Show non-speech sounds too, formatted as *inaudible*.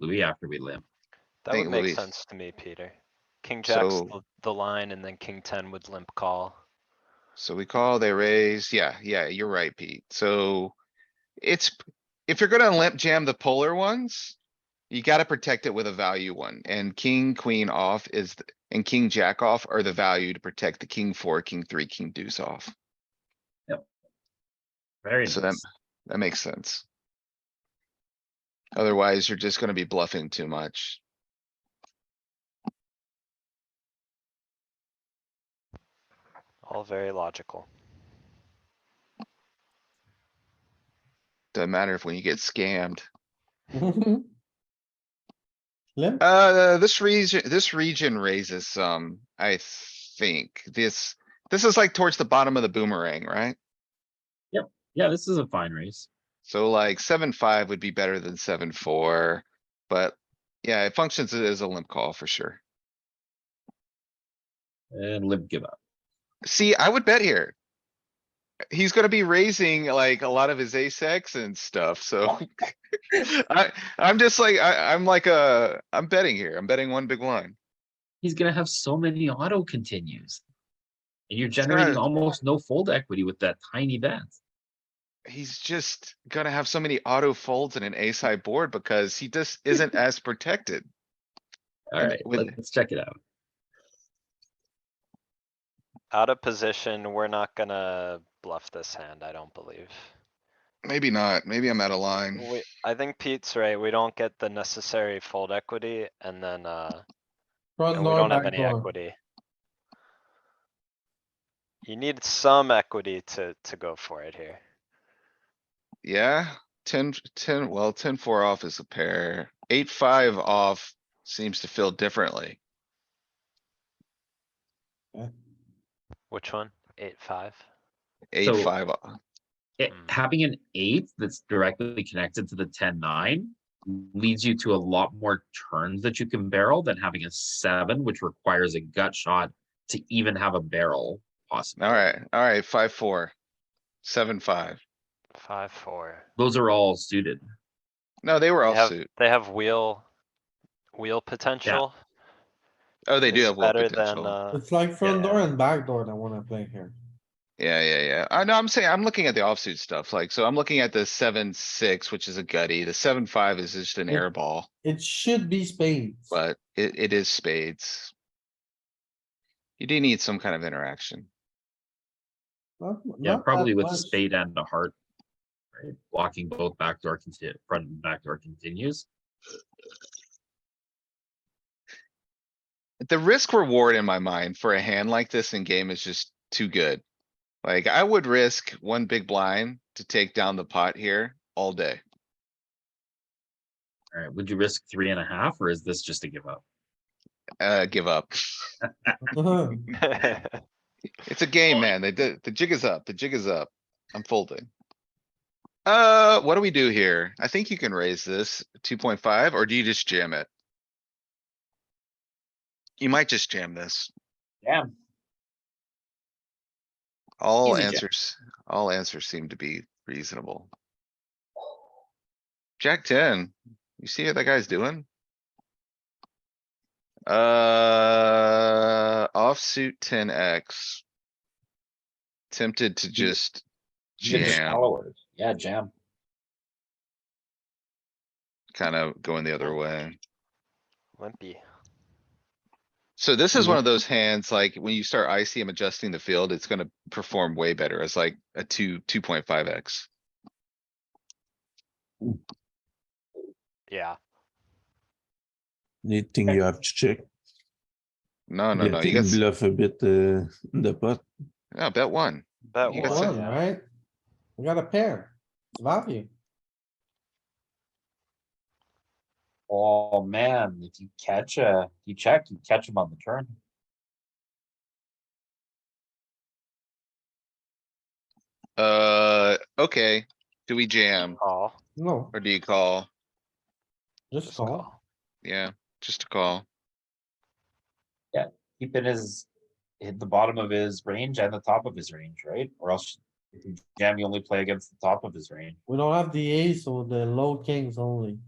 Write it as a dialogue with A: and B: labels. A: Louis after we limp.
B: That
C: think
B: would make
C: Louis-
B: sense to me, Peter. King jack's
C: So-
B: the- the line and then king ten would limp call.
C: So we call, they raise. Yeah, yeah, you're right, Pete. So it's, if you're gonna limp jam the polar ones, you gotta protect it with a value one and king, queen off is, th- and king, jack off are the value to protect the king four, king three, king deuce off.
A: Very
C: So that,
A: nice.
C: that makes sense. Otherwise, you're just gonna be bluffing too much.
B: All very logical.
C: Doesn't matter if when you get scammed.
D: Limp,
C: Uh, this region, this region raises some, I think. This, this is like towards the bottom of the boomerang, right?
A: Yeah, this is a fine race.
C: So like seven, five would be better than seven, four, but yeah, it functions as a limp call for sure.
A: And limp give up.
C: See, I would bet here. He's gonna be raising like a lot of his ace X and stuff, so. *laughs* I, I'm just like, I, I'm like a, I'm betting here. I'm betting one big line.
A: He's gonna have so many auto continues. And you're generating
C: right.
A: almost no fold equity with that tiny bet.
C: He's just gonna have so many auto folds in an ace high board because he just *laughs* isn't as protected. And
A: Alright,
C: with-
A: let's check it out.
B: Out of position, we're not gonna bluff this hand, I don't believe.
C: Maybe not. Maybe I'm out of line.
B: We, I think Pete's right, we don't get the necessary fold equity and then, uh,
D: front
B: and we
D: door,
B: don't have
D: back
B: any
D: door.
B: equity. You need some equity to, to go for it here.
C: Yeah, ten, ten, well, ten, four off is a pair. Eight, five off seems to feel differently.
B: Which one? Eight, five?
C: Eight,
A: So-
C: five, o-
A: It,
B: Mm.
A: having an eight that's directly connected to the ten, nine. Leads you to a lot more turns that you can barrel than having a seven, which requires a gut shot to even have a barrel possible.
C: alright, alright, five, four, seven, five.
B: Five, four.
A: Those are all suited.
C: No, they were
B: They
C: all
B: have,
C: suit.
B: they have wheel, wheel potential.
C: Oh, they do
B: is
C: have well
B: Better than,
C: potential.
B: uh,
D: It's like front door
B: yeah.
D: and back door that wanna play here.
C: Yeah, yeah, yeah. I know, I'm saying, I'm looking at the offsuit stuff, like, so I'm looking at the seven, six, which is a gutty. The seven, five is just an
D: Yeah.
C: air ball,
D: It should be spades.
C: but it, it is spades. You do need some kind of interaction.
D: Not-
A: Yeah,
D: not that
A: probably with a
D: much. *laughs*
A: spade and a heart. Right, blocking both backdoor continue, front and backdoor continues.
C: the risk reward in my mind for a hand like this in game is just too good. Like I would risk one big blind to take down the pot here all day.
A: Alright, would you risk three and a half or is this just a give up?
C: Uh, give up.
B: uh, *laughs*
C: It's a game, man. They did, the jig is up. The jig is up. I'm folding. Uh, what do we do here? I think you can raise this two point five, or do you just jam it? You might just jam this.
A: Yeah.
C: All
A: Easy jam.
C: answers, all answers seem to be reasonable. Jack ten, you see what that guy's doing? Uh, offsuit ten X. Tempted to just jam,
A: Yeah, jam.
C: kinda going the other way.
B: Limpy.
C: So this is
A: Mhm.
C: one of those hands, like when you start ICM adjusting the field, it's gonna perform way better as like a two, two point five X.
B: Yeah,
E: You think you have to check?
C: No, no,
E: You
C: no, you
E: think
C: got, s-
E: Bluff a bit, uh, the pot.
C: no, bet one.
B: that
C: You got
B: one,
C: some-
D: One,
B: yeah.
D: right? We got a pair. Value.
A: Oh, man, if you catch a, you check, you catch him on the turn.
C: Uh, okay, do we jam
B: Call.
D: No,
C: or do you call?
D: just call.
C: Yeah, just a call.
A: Keep in his, hit the bottom of his range and the top of his range, right? Or else if you jam, you only play against the top of his range.
D: We don't have the ace or the low kings only.